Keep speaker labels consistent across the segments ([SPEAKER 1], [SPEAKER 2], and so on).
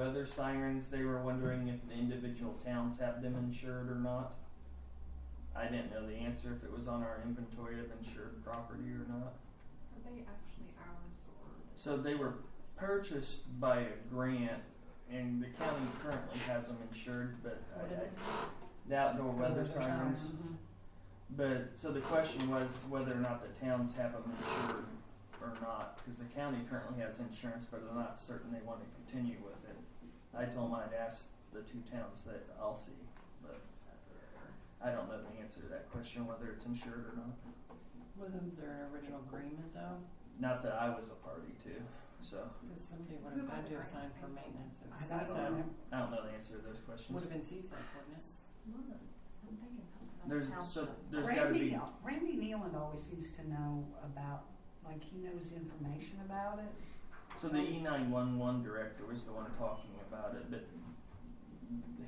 [SPEAKER 1] other sirens, they were wondering if the individual towns have them insured or not. I didn't know the answer if it was on our inventory of insured property or not.
[SPEAKER 2] Are they actually ours or?
[SPEAKER 1] So they were purchased by a grant, and the county currently has them insured, but
[SPEAKER 2] What
[SPEAKER 1] I,
[SPEAKER 2] is
[SPEAKER 1] I,
[SPEAKER 2] it?
[SPEAKER 1] the outdoor weather
[SPEAKER 3] Weather
[SPEAKER 1] sirens.
[SPEAKER 3] sirens.
[SPEAKER 4] Mm-hmm.
[SPEAKER 1] But so the question was whether or not the towns have them insured or not, because the county currently has insurance, but they're not certain they want to continue with it. I told them I'd ask the two towns that I'll see, but I don't know the answer to that question, whether it's insured or not.
[SPEAKER 3] Wasn't there an original agreement though?
[SPEAKER 1] Not that I was a party to, so
[SPEAKER 3] Because somebody would have had to have signed for maintenance. It was
[SPEAKER 4] I don't know.
[SPEAKER 3] CSAC.
[SPEAKER 1] I don't know the answer to those questions.
[SPEAKER 3] Would have been CSAC, wouldn't it?
[SPEAKER 2] Mine. I'm thinking something about
[SPEAKER 1] There's
[SPEAKER 2] township.
[SPEAKER 1] so there's got to
[SPEAKER 4] Randy,
[SPEAKER 1] be
[SPEAKER 4] Randy Nealon always seems to know about, like he knows information about it.
[SPEAKER 1] so the E nine one one director was the one talking about it, but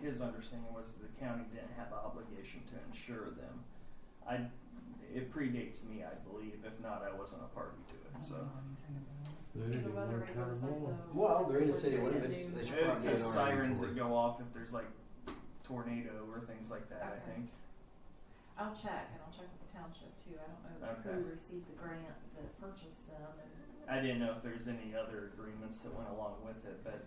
[SPEAKER 1] his understanding was that the county didn't have an obligation to insure them. I it predates me, I believe. If not, I wasn't a party to
[SPEAKER 4] I
[SPEAKER 1] it.
[SPEAKER 4] don't
[SPEAKER 1] So
[SPEAKER 3] Mm-hmm.
[SPEAKER 4] know anything about it.
[SPEAKER 5] They
[SPEAKER 2] The weather
[SPEAKER 5] didn't work out
[SPEAKER 2] radar
[SPEAKER 5] at
[SPEAKER 2] site,
[SPEAKER 5] all.
[SPEAKER 2] though.
[SPEAKER 6] Well, they're in the city
[SPEAKER 2] What's it
[SPEAKER 6] limits.
[SPEAKER 2] do?
[SPEAKER 6] They should
[SPEAKER 1] it
[SPEAKER 6] probably
[SPEAKER 1] says
[SPEAKER 6] get an R
[SPEAKER 1] sirens that
[SPEAKER 6] inventory.
[SPEAKER 1] go off if there's like tornado or things like that. I
[SPEAKER 2] Okay.
[SPEAKER 1] think.
[SPEAKER 2] I'll check and I'll check with the township too. I don't know
[SPEAKER 1] Okay.
[SPEAKER 2] who received the grant that purchased them and
[SPEAKER 1] I didn't know if there's any other agreements that went along with it, but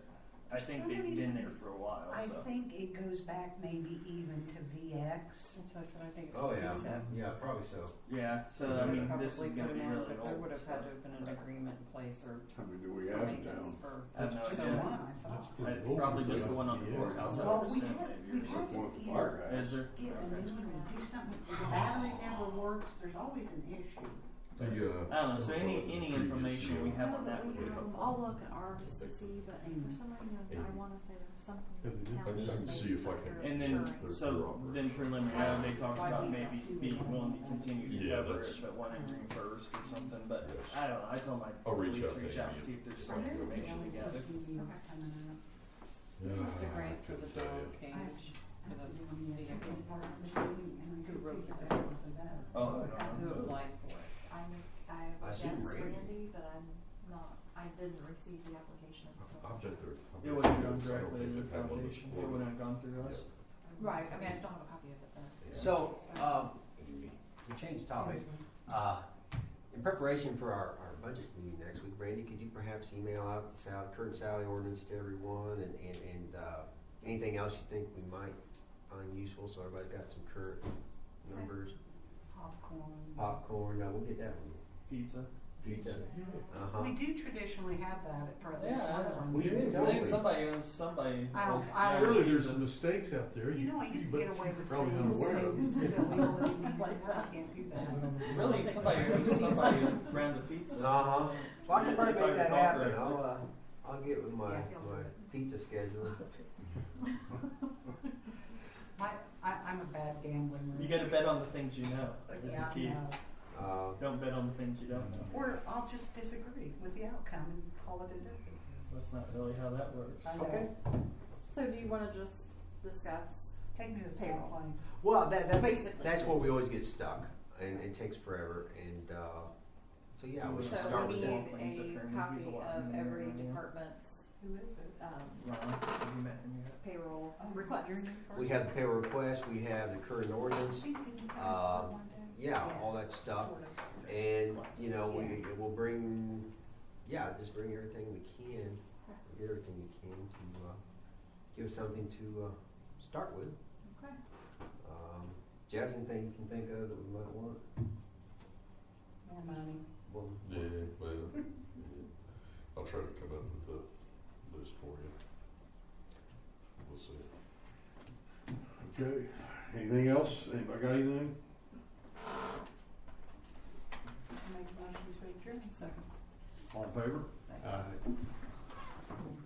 [SPEAKER 1] I
[SPEAKER 4] For
[SPEAKER 1] think
[SPEAKER 4] some
[SPEAKER 1] they've been
[SPEAKER 4] reason,
[SPEAKER 1] there for a while.
[SPEAKER 4] I
[SPEAKER 1] Oh, so
[SPEAKER 4] think it goes back maybe even to VX.
[SPEAKER 3] That's why I said I think it's
[SPEAKER 6] Oh, yeah.
[SPEAKER 3] CSAC.
[SPEAKER 6] Yeah, probably so.
[SPEAKER 1] yeah. So I
[SPEAKER 3] CSAC
[SPEAKER 1] mean, this is
[SPEAKER 3] probably
[SPEAKER 1] going to
[SPEAKER 3] put
[SPEAKER 1] be
[SPEAKER 3] them in,
[SPEAKER 1] really
[SPEAKER 3] but
[SPEAKER 1] old.
[SPEAKER 3] There would have
[SPEAKER 1] stuff.
[SPEAKER 3] had to have been an agreement in place or
[SPEAKER 7] How many do we
[SPEAKER 3] for
[SPEAKER 7] have in
[SPEAKER 3] maintenance
[SPEAKER 7] town?
[SPEAKER 3] for.
[SPEAKER 1] I have no
[SPEAKER 4] Just
[SPEAKER 1] idea.
[SPEAKER 4] one, I
[SPEAKER 5] That's
[SPEAKER 4] thought.
[SPEAKER 5] pretty
[SPEAKER 1] It's
[SPEAKER 5] old.
[SPEAKER 1] probably
[SPEAKER 5] It's
[SPEAKER 1] just the one on the
[SPEAKER 5] yeah.
[SPEAKER 1] courthouse.
[SPEAKER 4] Well, we
[SPEAKER 1] percent
[SPEAKER 4] have,
[SPEAKER 1] maybe or
[SPEAKER 4] we have
[SPEAKER 7] Except
[SPEAKER 4] to
[SPEAKER 7] one with the
[SPEAKER 4] either
[SPEAKER 7] fire
[SPEAKER 1] Is
[SPEAKER 7] guys.
[SPEAKER 1] there?
[SPEAKER 4] get a
[SPEAKER 1] Okay.
[SPEAKER 4] new one or do something. If The battery never works. There's always an issue.
[SPEAKER 5] The, uh,
[SPEAKER 1] I don't know. So
[SPEAKER 5] the
[SPEAKER 1] any
[SPEAKER 5] previous
[SPEAKER 1] any information we
[SPEAKER 5] CEO
[SPEAKER 1] have on that would be
[SPEAKER 2] Um,
[SPEAKER 1] helpful.
[SPEAKER 2] I'll look at ours to see, but for some reason I
[SPEAKER 5] Eight.
[SPEAKER 2] want to say there was
[SPEAKER 5] Yeah, they
[SPEAKER 2] something.
[SPEAKER 5] did.
[SPEAKER 2] the
[SPEAKER 5] I just
[SPEAKER 2] township
[SPEAKER 5] can see
[SPEAKER 2] made
[SPEAKER 5] if I
[SPEAKER 2] for
[SPEAKER 5] can-
[SPEAKER 1] And then,
[SPEAKER 2] insurance.
[SPEAKER 1] so then preliminarily, they talked about maybe being willing to continue to
[SPEAKER 5] Yeah,
[SPEAKER 1] cover it,
[SPEAKER 5] that's-
[SPEAKER 1] but wanting reimbursed or something, but
[SPEAKER 5] Yes.
[SPEAKER 1] I don't know, I told my
[SPEAKER 5] I'll reach
[SPEAKER 1] police
[SPEAKER 5] out to
[SPEAKER 1] reach
[SPEAKER 5] him
[SPEAKER 1] out and
[SPEAKER 5] and
[SPEAKER 1] see if there's
[SPEAKER 5] get
[SPEAKER 1] some
[SPEAKER 5] more
[SPEAKER 1] information
[SPEAKER 4] Really
[SPEAKER 1] together.
[SPEAKER 4] confused
[SPEAKER 2] Okay.
[SPEAKER 4] coming up.
[SPEAKER 5] Yeah,
[SPEAKER 3] The
[SPEAKER 5] I
[SPEAKER 3] grant for the
[SPEAKER 5] couldn't tell you.
[SPEAKER 3] dog cage.
[SPEAKER 4] I
[SPEAKER 3] for the-
[SPEAKER 4] the
[SPEAKER 3] the-
[SPEAKER 4] second part of the meeting, and I
[SPEAKER 3] Who
[SPEAKER 4] could
[SPEAKER 3] wrote
[SPEAKER 4] figure
[SPEAKER 3] that?
[SPEAKER 4] that out for that.
[SPEAKER 1] Oh, I don't
[SPEAKER 3] Who
[SPEAKER 1] know.
[SPEAKER 3] applied for it?
[SPEAKER 2] I'm, I
[SPEAKER 6] I
[SPEAKER 2] that's
[SPEAKER 6] assume Randy.
[SPEAKER 2] Randy, but I'm not, I didn't receive the application. so-
[SPEAKER 5] I, I bet they're. I
[SPEAKER 1] It
[SPEAKER 5] bet
[SPEAKER 1] would have
[SPEAKER 5] they're-
[SPEAKER 1] gone
[SPEAKER 5] I don't
[SPEAKER 1] directly to
[SPEAKER 5] think
[SPEAKER 1] the
[SPEAKER 5] they've had one
[SPEAKER 1] foundation,
[SPEAKER 5] before.
[SPEAKER 1] it would have gone through us.
[SPEAKER 2] Right, I mean, I just don't have a copy of it then.
[SPEAKER 5] Yeah.
[SPEAKER 6] So, um, to change topic, uh, in preparation for our, our budget meeting next week, Randy, could you perhaps email out the sal- current salary ordinance to everyone and, and, and, uh, anything else you think we might find useful, so everybody's got some current numbers?
[SPEAKER 4] Popcorn.
[SPEAKER 6] Popcorn, no, we'll get that one.
[SPEAKER 1] Pizza.
[SPEAKER 6] Pizza. Uh-huh.
[SPEAKER 4] We do traditionally have that for at least
[SPEAKER 1] Yeah,
[SPEAKER 4] one
[SPEAKER 1] I
[SPEAKER 4] of
[SPEAKER 1] know.
[SPEAKER 4] our
[SPEAKER 6] We do,
[SPEAKER 4] meetings.
[SPEAKER 1] I
[SPEAKER 6] don't
[SPEAKER 1] think
[SPEAKER 6] we?
[SPEAKER 1] somebody owns somebody.
[SPEAKER 4] I'll-
[SPEAKER 1] owns
[SPEAKER 4] I'll-
[SPEAKER 5] Surely there's
[SPEAKER 1] pizza.
[SPEAKER 5] some mistakes out there.
[SPEAKER 4] You know, I used to
[SPEAKER 5] but
[SPEAKER 4] get away with
[SPEAKER 5] probably not
[SPEAKER 4] saying
[SPEAKER 5] aware of
[SPEAKER 4] things
[SPEAKER 5] them.
[SPEAKER 4] that we wouldn't even like, I can't do that.
[SPEAKER 1] Really, somebody owns somebody around the pizza.
[SPEAKER 6] Uh-huh. Well, I
[SPEAKER 1] If
[SPEAKER 6] can probably
[SPEAKER 1] I
[SPEAKER 6] make that
[SPEAKER 1] recall
[SPEAKER 6] happen.
[SPEAKER 1] correctly.
[SPEAKER 6] I'll, uh, I'll get with my,
[SPEAKER 4] Yeah, he'll do
[SPEAKER 6] my
[SPEAKER 4] it.
[SPEAKER 6] pizza schedule.
[SPEAKER 4] My, I, I'm a bad gambling.
[SPEAKER 1] You
[SPEAKER 4] risk.
[SPEAKER 1] gotta bet on the things you know, is the
[SPEAKER 4] Yeah, I
[SPEAKER 1] key.
[SPEAKER 4] know.
[SPEAKER 6] Uh,
[SPEAKER 1] Don't bet on the things you don't know.
[SPEAKER 4] Or I'll just disagree with the outcome and call it a day.
[SPEAKER 1] That's not really how that works.
[SPEAKER 4] I know.
[SPEAKER 6] Okay.
[SPEAKER 2] So do you want to just discuss?
[SPEAKER 4] Take me to the
[SPEAKER 2] Payroll.
[SPEAKER 4] plane.
[SPEAKER 6] well, that, that's,
[SPEAKER 2] Basically.
[SPEAKER 6] that's where we always get stuck and it takes forever. And, uh, so yeah, we
[SPEAKER 1] So
[SPEAKER 6] should start
[SPEAKER 2] So we
[SPEAKER 6] with that.
[SPEAKER 1] Wayne's
[SPEAKER 2] need
[SPEAKER 1] attorney,
[SPEAKER 2] a
[SPEAKER 1] he's
[SPEAKER 2] copy
[SPEAKER 1] a lot
[SPEAKER 2] of
[SPEAKER 1] more
[SPEAKER 2] every
[SPEAKER 1] than
[SPEAKER 4] Mm-hmm.
[SPEAKER 1] I am.
[SPEAKER 2] department's,
[SPEAKER 4] Who is it?
[SPEAKER 2] um,
[SPEAKER 1] Ron, have you met him yet?
[SPEAKER 2] payroll
[SPEAKER 4] Oh,
[SPEAKER 2] request.
[SPEAKER 4] you're new
[SPEAKER 6] We
[SPEAKER 4] first.
[SPEAKER 6] have the payroll request, we have the current ordinance,
[SPEAKER 4] We did that
[SPEAKER 6] uh,
[SPEAKER 4] for one day.
[SPEAKER 6] yeah, all that stuff.
[SPEAKER 4] Sort of.
[SPEAKER 6] And, you know, we, we'll bring, yeah, just bring everything we can, get everything you can to, uh, give something to, uh, start with.
[SPEAKER 2] Okay.
[SPEAKER 6] Um, Jeff, anything you can think of that we might want?
[SPEAKER 4] More money.
[SPEAKER 6] Well,
[SPEAKER 5] Yeah, well, yeah. I'll try to come up with a list for you. We'll see.
[SPEAKER 7] Okay, anything else? Anybody got anything?
[SPEAKER 4] Make a motion to adjourn.
[SPEAKER 3] Second.
[SPEAKER 7] All in favor?
[SPEAKER 6] uh,